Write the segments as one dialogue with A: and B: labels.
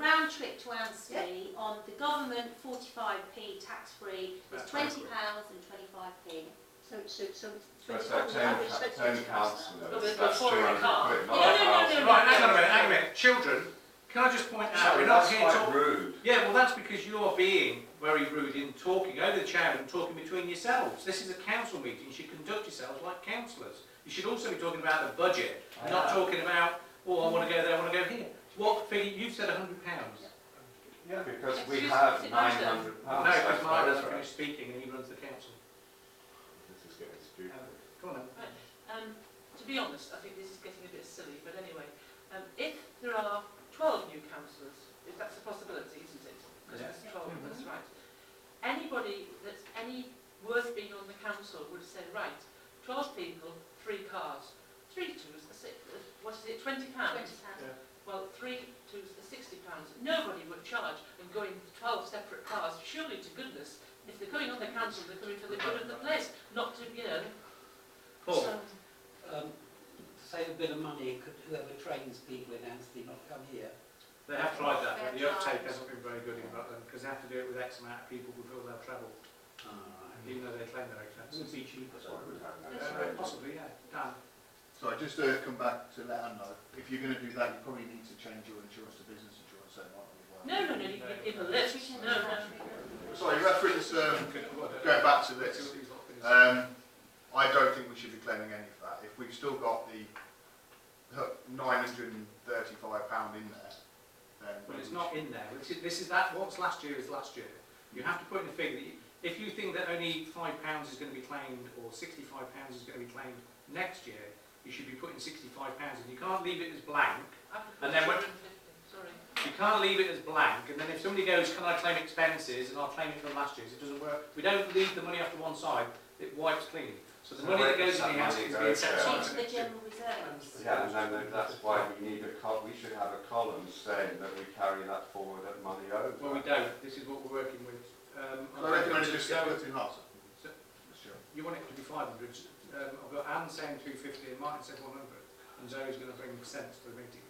A: round trip to Anstey on the government 45p tax-free is
B: That's
A: £20
B: right.
A: and 25p.
C: So, so, so it's
D: That's
C: £20
D: that town,
C: average, so it's
D: town
C: 20
D: councillor,
E: But
D: that's two
E: before I
D: hundred
E: come-
D: quid,
E: No,
D: not a
E: no, no, no,
D: thousand.
E: no.
B: Right, hang on a minute, hang on a minute. Children, can I just point out,
D: Sorry,
B: we're not
D: that's
B: here
D: quite
B: talking...
D: rude.
B: Yeah, well, that's because you're being very rude in talking over the chair and talking between yourselves. This is a council meeting, you should conduct yourselves like councillors. You should also be talking about the budget,
D: I
B: not
D: know.
B: talking about, oh, I want to go there, I want to go here. What figure, you've said £100.
D: Yeah, Ah, because we
E: Excuse-
D: have
E: sit
D: nine
E: down, sir.
D: hundred
B: No,
D: pounds.
B: because Mark hasn't finished speaking and he runs the council.
D: This is getting stupid.
B: Come on then.
E: Um, to be honest, I think this is getting a bit silly, but anyway, um, if there are 12 new councillors, if that's a possibility, isn't it? Because
B: Yes.
E: it's 12, that's right. Anybody that's any worth being on the council would say, right, 12 people, three cars, three twos, are six, uh, what is it, 20 pounds? Well, three twos are 60 pounds. Nobody would charge and go in 12 separate cars, surely to goodness. If they're going on the council, they're coming for the good of the place, not to, you know,
B: Paul,
E: some-
F: um, save a bit of money, could whoever trains people in Anstey not come here?
B: they have tried that, but the uptake hasn't been very good in Rutland because they have to do it with X amount of people before they'll travel,
F: Hmm.
B: even though they claim they're expensive.
F: Would be cheaper.
D: That's why we have no
B: Uh,
D: change.
B: Possibly, yeah. Dan?
G: So I just uh, come back to let Anne know, if you're going to do that, you probably need to change your insurance to business insurance, so it might not be worth it.
E: No, no, no, you can give a list. No, no.
G: So you reference, um,
B: Okay, well, I don't-
G: going back to
B: Let's see what
G: this,
B: these lot finish.
G: um, I don't think we should be claiming any of that. If we've still got the £935 in there, then...
B: But it's not in there. This is, this is that, what's last year is last year. You have to put in a figure that you, if you think that only five pounds is going to be claimed or sixty-five pounds is going to be claimed next year, you should be putting sixty-five pounds and you can't leave it as blank. And then what-
E: Sorry.
B: You can't leave it as blank and then if somebody goes, can I claim expenses and I'll claim it from last year's, it doesn't work. We don't leave the money off to one side, it wipes clean. So the
D: So
B: money
D: where
B: that goes
D: does
B: in
D: that
B: the house
D: money uh,
B: is
D: go
B: being set
D: to?
B: aside.
A: Into the general reserves.
D: Yeah, and then that's why we need a col, we should have a column saying that we carry that forward at money over.
B: Well, we don't. This is what we're working with. Um,
G: So I recommend
B: I'm
G: just get
B: going
G: rid
B: to
G: of two halves.
B: So-
G: Sure.
B: You want it to be 500. Um, I've got Anne saying 250 and Martin said 100. And Zoe's going to bring sense to the meeting.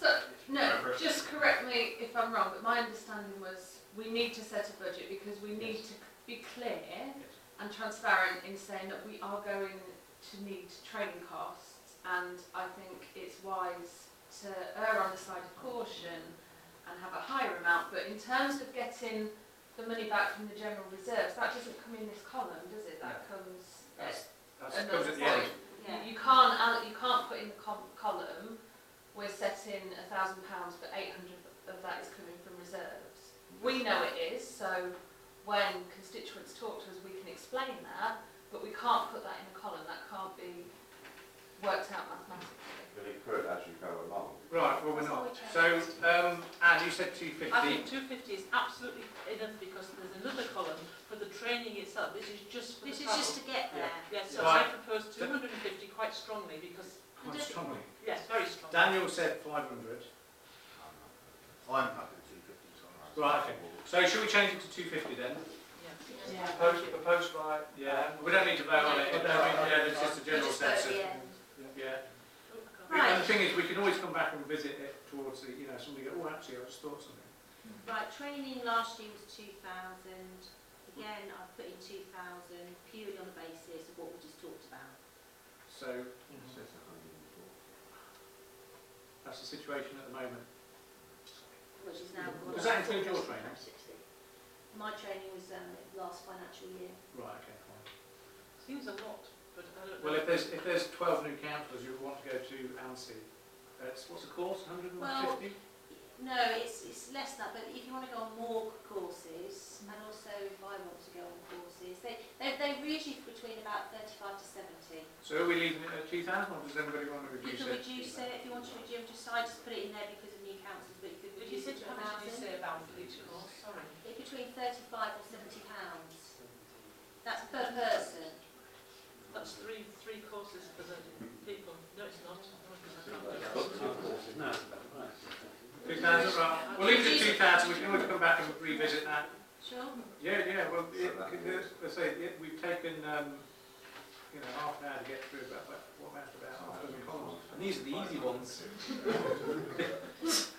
H: So, no, just correct me if I'm wrong, but my understanding was we need to set a budget because we need to be clear and transparent in saying that we are going to need training costs and I think it's wise to err on the side of caution and have a higher amount, but in terms of getting the money back from the general reserves, that doesn't come in this column, does it? That comes uh, at
B: That's, that's
H: And
B: comes
H: that's
B: at the end.
H: fine.
A: Yeah.
H: You, you can't al- you can't put in the com- column. We're setting a thousand pounds, but eight hundred of that is coming from reserves. We know it is, so when constituents talk to us, we can explain that, but we can't put that in a column. That can't be worked out mathematically.
D: But it could as you go along.
B: Right, well, we're not. So, um, Anne, you said 250.
E: I think 250 is absolutely enough because there's another column for the training itself. This is just for
A: This
E: the
A: is
E: travel.
A: just to get there.
E: Yes, so
B: Right.
E: I propose 250 quite strongly because,
B: Quite strongly.
E: yes, very strong.
B: Oh, Daniel said 500.
G: I'm happy with 250, so I'm happy.
B: Right, okay. So, shall we change it to 250 then?
E: Yeah.
A: Yeah.
B: Proposed, proposed by. Yeah, we don't need to vote on it. I mean, yeah, it's just a general
A: Just at
B: sense of.
A: the end.
B: Yeah.
E: Oh, I can't-
A: Right.
B: And the thing is, we can always come back and visit it towards the, you know, somebody go, oh, actually, I just thought something.
A: Right, training last year was 2,000. Again, I put in 2,000 purely on the basis of what we just talked about.
B: So,
D: So it's a hundred and forty.
B: that's the situation at the moment.
A: Which is now
B: Does that include your training?
A: My training was um, last financial year.
B: Right, okay, fine.
E: Seems a lot, but I don't know.
B: Well, if there's, if there's 12 new councillors who want to go to ANSI, that's, what's the course, 150?
A: No, it's, it's less than that, but if you want to go on more courses, and also if I want to go on courses, they, they, they're usually between about 35 to 70.
B: So are we leaving it at 2,000 or does everybody want
A: You
B: to reduce
A: can
B: it?
A: reduce it if you want to reduce it, just, I just put it in there because of new councils, but you could
E: Did you
A: reduce
E: say
A: it to
E: how much did you
A: 1,000.
E: say about each of us? Sorry.
A: It's between 35 or 70 pounds. That's per person.
E: That's three, three courses for the people. No, it's not. Oh, because I can't do that.
F: No, right.
B: 2,000, right. We'll leave it at 2,000, we can always come back and revisit that.
A: Sure.
B: Yeah, yeah, well,
D: So
B: it,
D: that
B: could-
D: means-
B: let's say, it- we've taken, um, you know, half an hour to get through about, what, about half a dozen columns. And these are the easy ones.